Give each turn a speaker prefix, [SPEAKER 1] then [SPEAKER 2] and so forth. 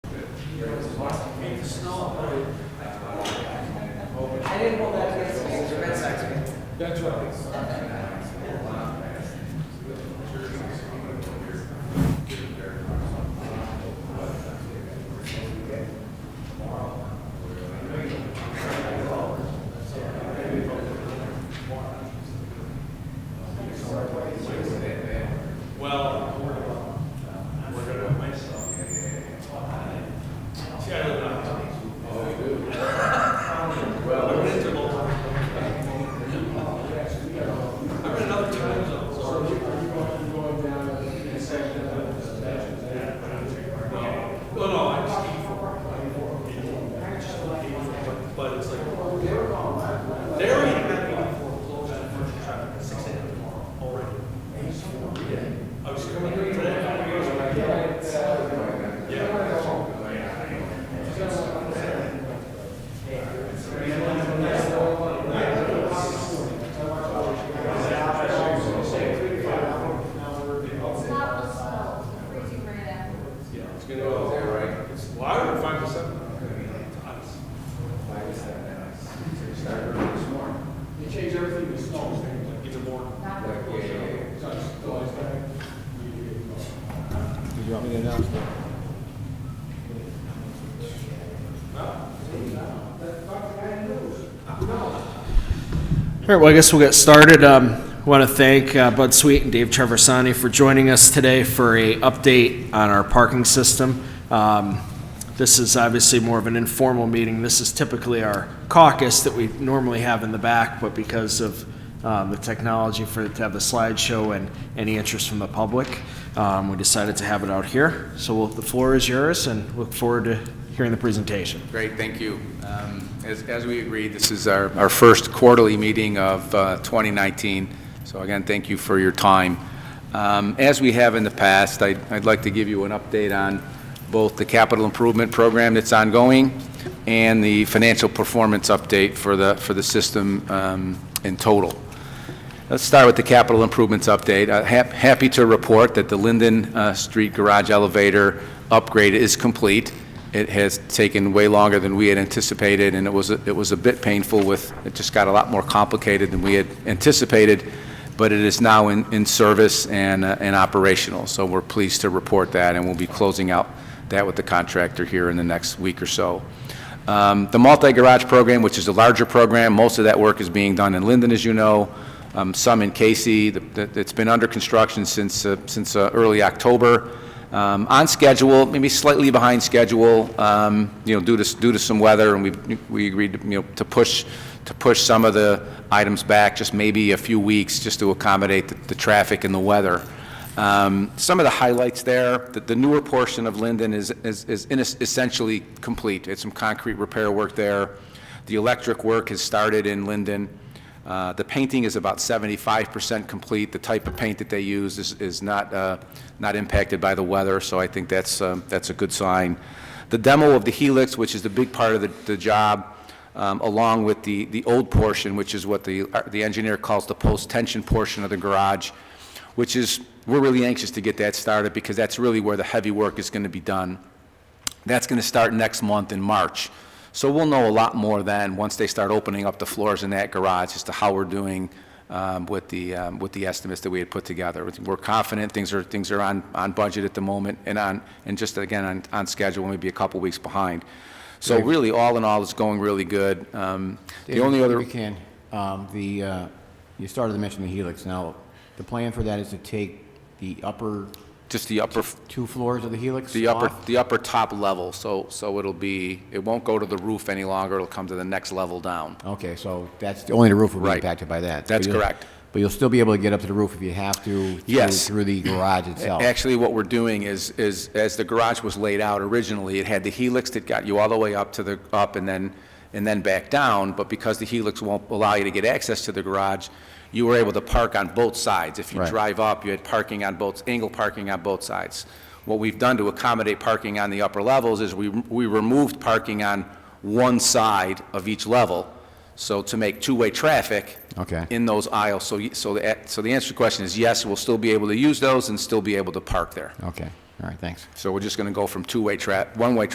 [SPEAKER 1] I didn't hold that against you, it's a Red Sox fan.
[SPEAKER 2] That's right.
[SPEAKER 3] Well, we're gonna, we're gonna myself. See, I live on. Well. We're into local. I'm in another time zone, so. No, no, I just eat for it. I just don't eat for it, But it's like. They're already at me for close on first traffic at six AM tomorrow already. I was coming here today. I was like, Yeah.
[SPEAKER 4] Stop the snow, it's uh, freezing right afterwards.
[SPEAKER 3] Yeah. It's gonna go there, right? It's wider than five percent. Ice.
[SPEAKER 2] They changed everything to snow,
[SPEAKER 3] It's a more.
[SPEAKER 4] Not the cool snow.
[SPEAKER 2] so it's always better.
[SPEAKER 5] Did you want me to announce that?
[SPEAKER 6] All right, well, I guess we'll get started. Um, want to thank uh, Bud Sweet and Dave Traversani for joining us today for a update on our parking system. Um, this is obviously more of an informal meeting. This is typically our caucus that we normally have in the back, but because of um, the technology for to have the slideshow and any interest from the public, um, we decided to have it out here. So we'll, the floor is yours, and look forward to hearing the presentation.
[SPEAKER 7] Great, thank you. Um, As as we agreed, this is our our first quarterly meeting of uh, 2019, so again, thank you for your time. Um, As we have in the past, I'd I'd like to give you an update on both the capital improvement program that's ongoing and the financial performance update for the for the system um, in total. Let's start with the capital improvements update. Uh, hap- Happy to report that the Linden uh, Street Garage Elevator upgrade is complete. It has taken way longer than we had anticipated, and it was, a- it was a bit painful with, it just got a lot more complicated than we had anticipated, but it is now in, in service and, uh, and operational. So we're pleased to report that, and we'll be closing out that with the contractor here in the next week or so. Um, The multi-garage program, which is a larger program, most of that work is being done in Linden, as you know, um, some in Casey. The- the- It's been under construction since, uh, since uh, early October. Um, On schedule, maybe slightly behind schedule, um, you know, due to, due to some weather, and we, we agreed, you know, to push, to push some of the items back, just maybe a few weeks, just to accommodate the, the traffic and the weather. Um, Some of the highlights there, that the newer portion of Linden is, is is in- essentially complete. It's some concrete repair work there. The electric work has started in Linden. Uh, The painting is about 75% complete. The type of paint that they use is, is not, uh, not impacted by the weather, so I think that's, um, that's a good sign. The demo of the helix, which is the big part of the, the job, um, along with the, the old portion, which is what the, the engineer calls the post-tension portion of the garage, which is, we're really anxious to get that started because that's really where the heavy work is going to be done. That's going to start next month in March. So we'll know a lot more then, once they start opening up the floors in that garage, as to how we're doing um, with the, um, with the estimates that we had put together. We're confident, things are, things are on, on budget at the moment, and on, and just again, on, on schedule, maybe a couple weeks behind. So really, all in all, it's going really good. Um, The only other.
[SPEAKER 5] If you can, um, the, uh, you started to mention the helix. Now, the plan for that is to take the upper
[SPEAKER 7] Just the upper,
[SPEAKER 5] two floors of the helix
[SPEAKER 7] the upper,
[SPEAKER 5] off?
[SPEAKER 7] the upper top level, so, so it'll be, it won't go to the roof any longer, it'll come to the next level down.
[SPEAKER 5] Okay, so that's, only the roof will be
[SPEAKER 7] Right.
[SPEAKER 5] impacted by that.
[SPEAKER 7] That's
[SPEAKER 5] But you'll-
[SPEAKER 7] correct.
[SPEAKER 5] But you'll still be able to get up to the roof if you have to? through-
[SPEAKER 7] Yes.
[SPEAKER 5] Through the garage itself?
[SPEAKER 7] Actually, what we're doing is, is, as the garage was laid out originally, it had the helix that got you all the way up to the, up and then, and then back down, but because the helix won't allow you to get access to the garage, you were able to park on both sides. If you
[SPEAKER 5] Right.
[SPEAKER 7] drive up, you had parking on both, angle parking on both sides. What we've done to accommodate parking on the upper levels is we, we removed parking on one side of each level, so to make two-way traffic.
[SPEAKER 5] Okay.
[SPEAKER 7] In those aisles, so, y- so the, a- so the answer to the question is yes, we'll still be able to use those and still be able to park there.
[SPEAKER 5] Okay, all right, thanks.
[SPEAKER 7] So we're just gonna go from two-way tra, one-way